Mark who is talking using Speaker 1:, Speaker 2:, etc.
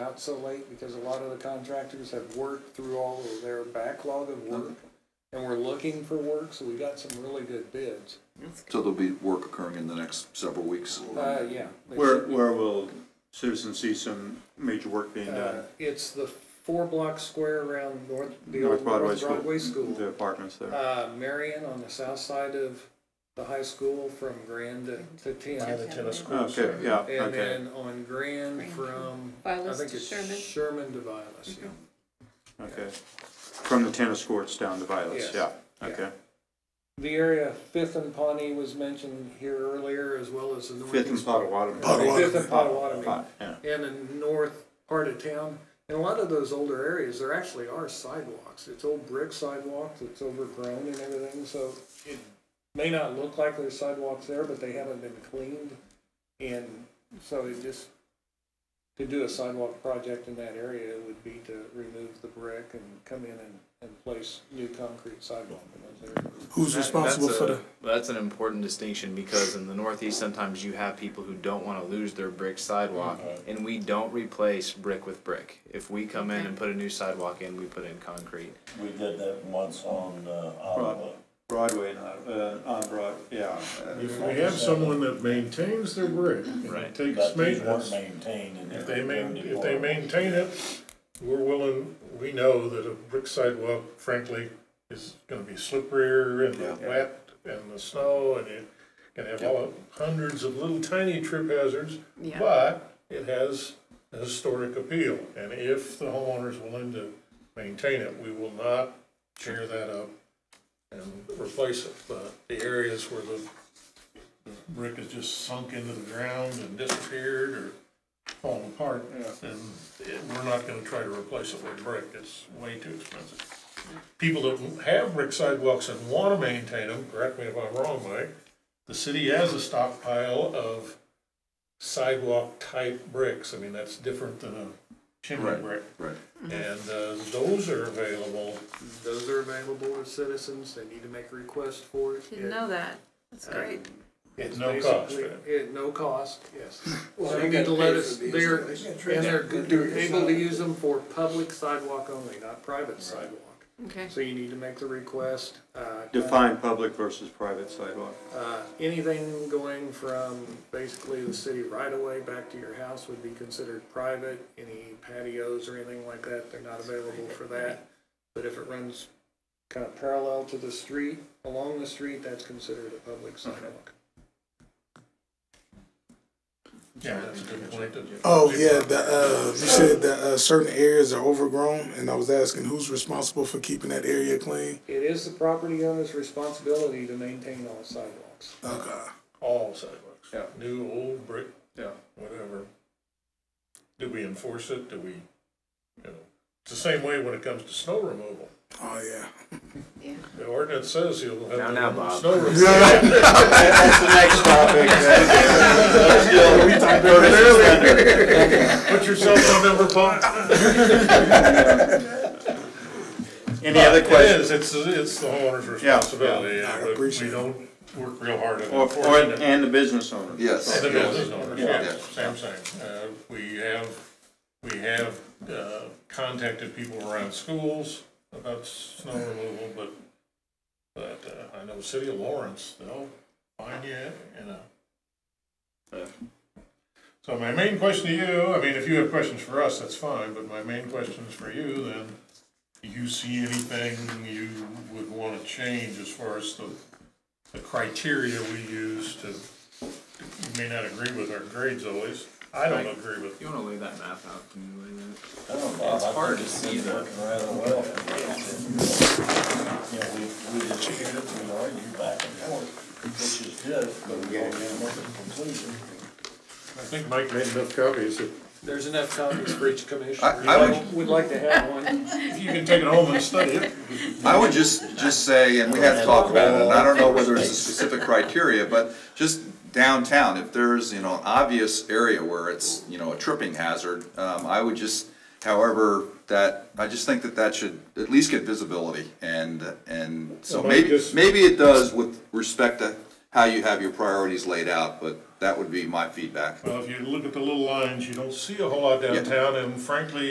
Speaker 1: out so late because a lot of the contractors have worked through all of their backlog of work. And we're looking for work, so we got some really good bids.
Speaker 2: So there'll be work occurring in the next several weeks.
Speaker 1: Uh, yeah. they
Speaker 3: Where,
Speaker 1: should be.
Speaker 3: where will citizens see some major work being
Speaker 1: Uh,
Speaker 3: done?
Speaker 1: It's the four block square around north, the
Speaker 3: North
Speaker 1: old
Speaker 3: Broadway
Speaker 1: North
Speaker 3: School.
Speaker 1: Broadway School.
Speaker 3: The apartments there.
Speaker 1: Uh, Marion on the south side of the high school from Grand to- to
Speaker 4: By the
Speaker 1: Tenth.
Speaker 4: tennis courts.
Speaker 3: Okay, yeah,
Speaker 1: And
Speaker 3: okay,
Speaker 1: then on Grand from, I
Speaker 5: Vilas
Speaker 1: think
Speaker 5: to
Speaker 1: it's
Speaker 5: Sherman.
Speaker 1: Sherman to Vilas, yeah.
Speaker 3: okay. From the tennis courts down to Violet's,
Speaker 1: Yes,
Speaker 3: yeah,
Speaker 1: yeah.
Speaker 3: okay.
Speaker 1: The area Fifth and Pawnee was mentioned here earlier, as well as the northeast.
Speaker 3: Fifth and Potawatomi.
Speaker 1: Fifth and Potawatomi,
Speaker 3: Pot- Yeah,
Speaker 1: and the north part of town. In a lot of those older areas, there actually are sidewalks. It's old brick sidewalks, it's overgrown and everything, so it may not look like there's sidewalks there, but they haven't been cleaned. And so it just, to do a sidewalk project in that area would be to remove the brick and come in and, and place new concrete sidewalk in those areas.
Speaker 6: Who's responsible
Speaker 7: that's
Speaker 6: for
Speaker 7: a-
Speaker 6: the?
Speaker 7: That's an important distinction because in the Northeast, sometimes you have people who don't want to lose their brick sidewalk,
Speaker 4: Mm-hmm.
Speaker 7: and we don't replace brick with brick. If we come in and put a new sidewalk in, we put in concrete.
Speaker 8: We did that once on, uh, Ottawa.
Speaker 3: Broadway, not, uh, on Broad, yeah.
Speaker 4: If we have someone that maintains their brick
Speaker 7: Right.
Speaker 4: and takes
Speaker 8: But these weren't
Speaker 4: maintenance,
Speaker 8: maintained and.
Speaker 4: if they main,
Speaker 8: they're
Speaker 4: if they maintain it, we're willing, we know that a brick sidewalk frankly is gonna be slipperier and wet and the snow and it can have all hundreds of little tiny trip hazards.
Speaker 5: Yeah.
Speaker 4: But it has a historic appeal and if the homeowner's willing to maintain it, we will not tear that up and replace it. But the areas where the brick has just sunk into the ground and disappeared or fallen apart, then it- we're not gonna try to replace it with brick, it's way too expensive. People that have brick sidewalks and wanna maintain them, correct me if I'm wrong, Mike, the city has a stockpile of sidewalk-type bricks, I mean, that's different than a chimney
Speaker 2: Right.
Speaker 4: brick.
Speaker 2: Right.
Speaker 4: And, uh, those are available,
Speaker 1: Those are available to citizens, they need to make a request for it.
Speaker 5: Didn't know that. That's great.
Speaker 1: It's
Speaker 4: No cost,
Speaker 1: basically-
Speaker 4: right?
Speaker 1: At no cost, yes. They need to let us, they're, and they're, they're able to use them for public sidewalk only, not private sidewalk.
Speaker 5: Okay.
Speaker 1: So you need to make the request, uh,
Speaker 3: Define public versus private sidewalk.
Speaker 1: uh, anything going from basically the city right away back to your house would be considered private. Any patios or anything like that, they're not available for that. But if it runs kind of parallel to the street, along the street, that's considered a public sidewalk.
Speaker 4: yeah, that's a good point. that-
Speaker 6: Oh yeah, the, uh, you said that uh, certain areas are overgrown, and I was asking who's responsible for keeping that area clean.
Speaker 1: It is the property owner's responsibility to maintain all sidewalks.
Speaker 6: Okay.
Speaker 4: all sidewalks.
Speaker 3: Yeah.
Speaker 4: New, old, brick,
Speaker 3: Yeah.
Speaker 4: whatever. Do we enforce it? Do we, you know, it's the same way when it comes to snow removal.
Speaker 6: Oh yeah.
Speaker 4: The ordinance says you'll have.
Speaker 7: Now,
Speaker 4: to
Speaker 7: now,
Speaker 4: remove
Speaker 7: Bob.
Speaker 4: Snow removal.
Speaker 3: That's the next topic.
Speaker 4: Put yourself on number five.
Speaker 3: Any other
Speaker 4: It
Speaker 3: questions?
Speaker 4: is, it's, it's the homeowner's
Speaker 3: yeah.
Speaker 4: responsibility. and
Speaker 6: I
Speaker 4: we-
Speaker 6: appreciate
Speaker 4: We don't work real hard at
Speaker 3: Or, or,
Speaker 4: enforcing it.
Speaker 3: and the business owner.
Speaker 2: Yes.
Speaker 4: The business owners,
Speaker 3: Yeah.
Speaker 4: yes, same thing. Uh, we have, we have, uh, contacted people around schools about snow removal, but, but, uh, I know City of Lawrence, they'll find you, you know. So my main question to you, I mean, if you have questions for us, that's fine, but my main question is for you then. Do you see anything you would wanna change as far as the, the criteria we use to, you may not agree with our grades always. I don't agree with,
Speaker 7: You want to lay that map out? Can you lay that?
Speaker 8: It's
Speaker 7: hard to see the-
Speaker 8: Rather well. for us. You know, we, we disputed, we argued back and forth, which is good, but we all didn't look at conclusion.
Speaker 4: I think Mike made enough copies. that
Speaker 1: There's enough copies for each commissioner.
Speaker 2: I- I would-
Speaker 1: Would like to have one.
Speaker 4: You can take it home and study it.
Speaker 2: I would just, just say, and we have talked about it, and I don't know whether it's a specific criteria, but just downtown, if there's, you know, an obvious area where it's, you know, a tripping hazard, um, I would just, however, that, I just think that that should at least get visibility, and, and so
Speaker 4: Well,
Speaker 2: maybe,
Speaker 4: just-
Speaker 2: maybe it does with respect to how you have your priorities laid out, but that would be my feedback.
Speaker 4: Well, if you look at the little lines, you don't see a whole lot downtown, and frankly,